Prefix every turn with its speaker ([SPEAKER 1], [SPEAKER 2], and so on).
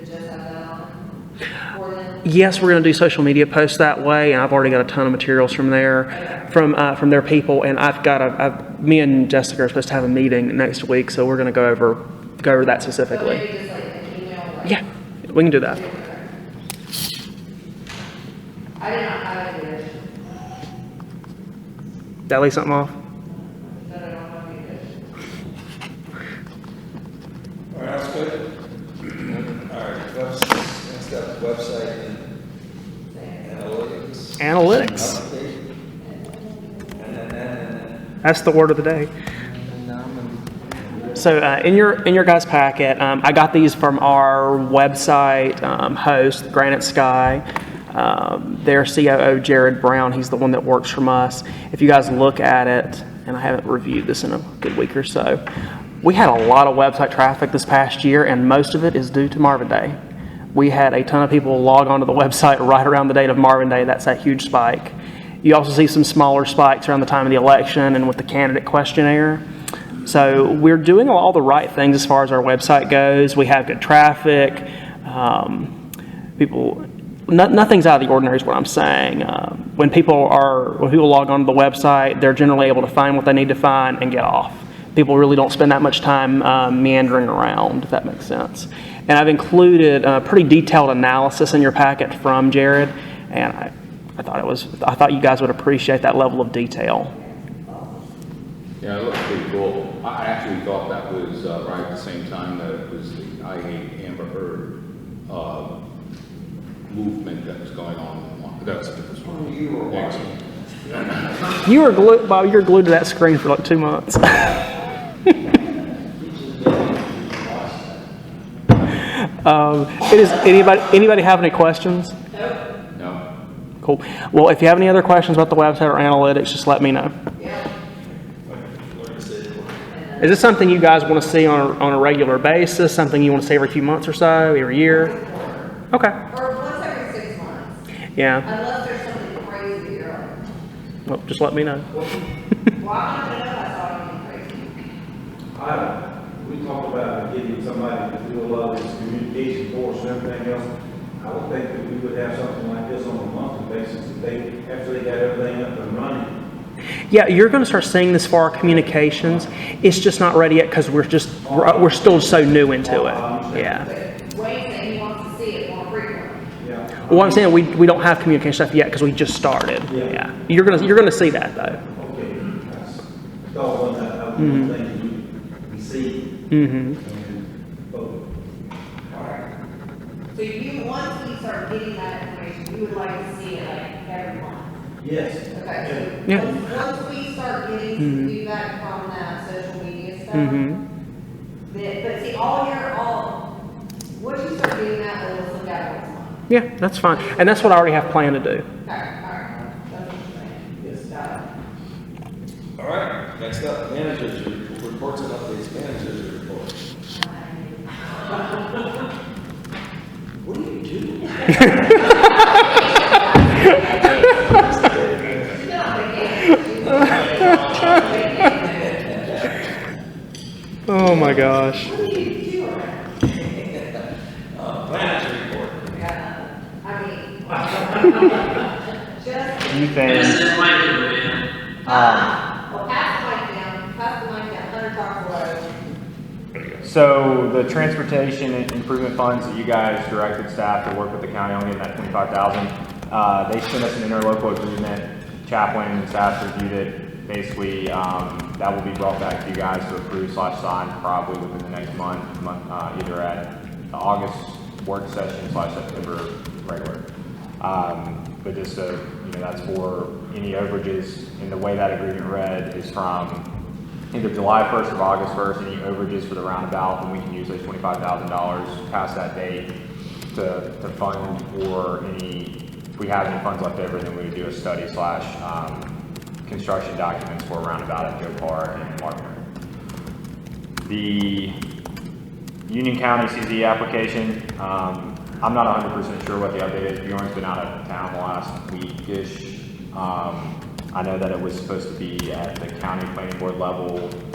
[SPEAKER 1] just have that on for them?
[SPEAKER 2] Yes, we're going to do social media posts that way, and I've already got a ton of materials from there, from, uh, from their people, and I've got a, I've, me and Jessica are supposed to have a meeting next week, so we're going to go over, go over that
[SPEAKER 1] So
[SPEAKER 2] specifically.
[SPEAKER 1] maybe just like an email, like.
[SPEAKER 2] Yeah, we can do that.
[SPEAKER 1] I did not have it here,
[SPEAKER 2] Did I leave something off?
[SPEAKER 1] so I don't know if you did.
[SPEAKER 3] All right, that's good. All right, webs- next up, website and analytics.
[SPEAKER 2] Analytics.
[SPEAKER 3] Application. And then, and then,
[SPEAKER 2] That's the word of the day.
[SPEAKER 3] and then, um,
[SPEAKER 2] So uh, in your in your guys' packet, um, I got these from our website um, host, Granite Sky. Um, their COO, Jared Brown, he's the one that works from us. If you guys look at it, and I haven't reviewed this in a good week or so, we had a lot of website traffic this past year, and most of it is due to Marvin Day. We had a ton of people log onto the website right around the date of Marvin Day. That's that huge spike. You also see some smaller spikes around the time of the election and with the candidate questionnaire. So we're doing all the right things as far as our website goes. We have good traffic. Um, people, no, nothing's out of the ordinary is what I'm saying. Uh, when people are, when people log onto the website, they're generally able to find what they need to find and get off. People really don't spend that much time uh, meandering around, if that makes sense. And I've included a pretty detailed analysis in your packet from Jared, and I, I thought it was, I thought you guys would appreciate that level of detail.
[SPEAKER 4] Yeah, it looks pretty cool. I I actually thought that was uh, right at the same time that it was the I Hate Amber Heard uh, movement that was going on. That's a different story.
[SPEAKER 3] Oh, you were watching.
[SPEAKER 2] You were glued, Bob. You were glued to that screen for like two months. um, it is anybody anybody have any questions?
[SPEAKER 4] No?
[SPEAKER 2] Cool. Well, if you have any other questions about the website or analytics, just let me know. Is this something you guys want to see on a, on a regular basis? Something you want to see every few months or so, every year? Okay.
[SPEAKER 1] Or once every six months,
[SPEAKER 2] Yeah.
[SPEAKER 1] unless there's something crazy, you're like,
[SPEAKER 2] Well, just let me know.
[SPEAKER 1] well, I don't know, I saw it be crazy.
[SPEAKER 5] I, we talked about getting somebody to do a lot of this communication for us and everything else. I would think that we would have something like this on a monthly basis if they, after they got everything up and running.
[SPEAKER 2] Yeah, you're going to start seeing this for our communications. It's just not ready yet because we're just we're, we're still so new into it. Yeah.
[SPEAKER 1] But Wayne said he wants to see it more frequently.
[SPEAKER 5] Yeah.
[SPEAKER 2] Well, I'm saying we, we don't have communication stuff yet because we just started.
[SPEAKER 5] Yeah.
[SPEAKER 2] Yeah. You're gonna you're gonna see that though.
[SPEAKER 5] Okay, that's, that's one that I would think we, we see.
[SPEAKER 2] Mm-hmm.
[SPEAKER 5] and vote.
[SPEAKER 1] So you, once we start getting that information, you would like to see it like every month.
[SPEAKER 5] Yes.
[SPEAKER 1] Okay, so
[SPEAKER 2] Yeah.
[SPEAKER 1] once- once we start getting feedback from that social media stuff,
[SPEAKER 2] Mhm.
[SPEAKER 1] then, but see, all your, all, once you start getting that, oh, then let's look at what's on.
[SPEAKER 2] Yeah, that's fine. And that's what I already have planned to do.
[SPEAKER 1] All right, all right, that's what I'm saying.
[SPEAKER 5] Yes.
[SPEAKER 1] Got it.
[SPEAKER 3] All right, next up, managers, re- reports and updates, managers report. What do you do?
[SPEAKER 2] Oh my gosh.
[SPEAKER 3] Manager report.
[SPEAKER 1] I mean. Just,
[SPEAKER 2] You think?
[SPEAKER 1] uh, well, pass the mic down, pass the mic down, Hunter talks low.
[SPEAKER 6] So the transportation improvement funds that you guys directed staff to work with the county on getting that twenty-five thousand, uh, they sent us an interlocal agreement. Chaplain and staff reviewed it. Basically, um, that will be brought back to you guys to approve slash sign probably within the next month, month, uh, either at the August work session slash September regular. Um, But just so, you know, that's for any overages, and the way that agreement read is from either July 1st or August 1st, any overages for the roundabout, then we can use those $25,000 past that date to, to fund or any, if we have any funds left over, then we would do a study slash um, construction documents for a roundabout at Joe Parr and Martin. The Union County CZ application. Um, I'm not hundred percent sure what the update is. Bjorn's been out of town the last weekish. Um, I know that it was supposed to be at the county planning board level